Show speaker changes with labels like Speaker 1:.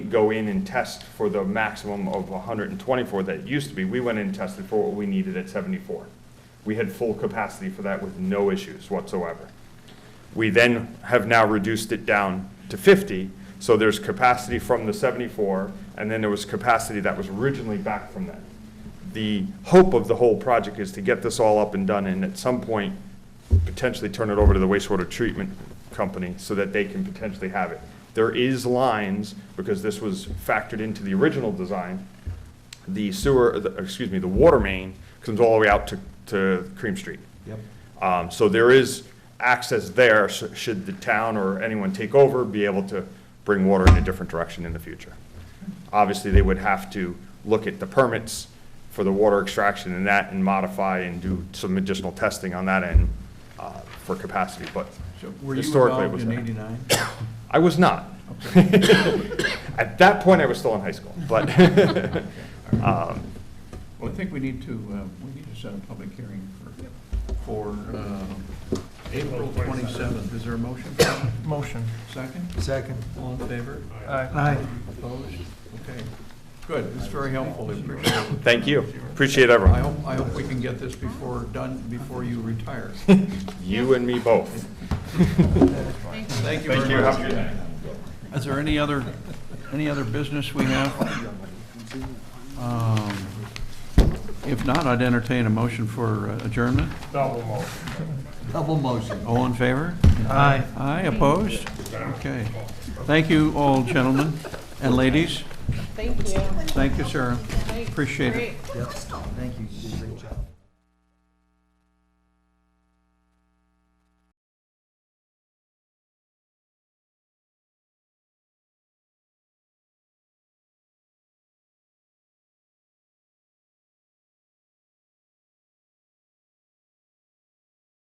Speaker 1: go in and test for the maximum of 124 that it used to be. We went in and tested for what we needed at 74. We had full capacity for that with no issues whatsoever. We then have now reduced it down to 50, so there's capacity from the 74, and then there was capacity that was originally back from that. The hope of the whole project is to get this all up and done, and at some point, potentially turn it over to the wastewater treatment company so that they can potentially have it. There is lines, because this was factored into the original design, the sewer, the- excuse me, the water main comes all the way out to, to Cream Street.
Speaker 2: Yep.
Speaker 1: Um, So there is access there, sh- should the town or anyone take over, be able to bring water in a different direction in the future. Obviously, they would have to look at the permits for the water extraction and that, and modify and do some additional testing on that end uh, for capacity, but
Speaker 2: So were you
Speaker 1: historically it
Speaker 2: involved
Speaker 1: was
Speaker 2: in
Speaker 1: there.
Speaker 2: eighty-nine?
Speaker 1: I was not. At that point, I was still in high school, but
Speaker 2: Well, I think we need to, uh, we need to set a public hearing for, for uh, April twenty-seventh. Is there a motion?
Speaker 3: Motion.
Speaker 2: Second?
Speaker 3: Second.
Speaker 2: All in favor?
Speaker 3: Aye.
Speaker 2: Opposed? Okay. Good. It's very helpful. I appreciate it.
Speaker 1: thank you. Appreciate
Speaker 2: I
Speaker 1: everyone.
Speaker 2: hope, I hope we can get this before, done before you retire.
Speaker 1: You and me both. Thank
Speaker 2: Thank you
Speaker 1: you.
Speaker 2: very
Speaker 1: Have a
Speaker 2: much.
Speaker 1: good night.
Speaker 2: Is there any other, any other business we have? Um, If not, I'd entertain a motion for uh, adjournment.
Speaker 3: Double motion.
Speaker 2: All in favor?
Speaker 3: Aye.
Speaker 2: Aye, opposed? Okay. Thank you all, gentlemen and ladies.
Speaker 4: Thank you.
Speaker 2: Thank you, Sarah. Appreciate it.
Speaker 4: Great.
Speaker 3: Thank you, you did a great job.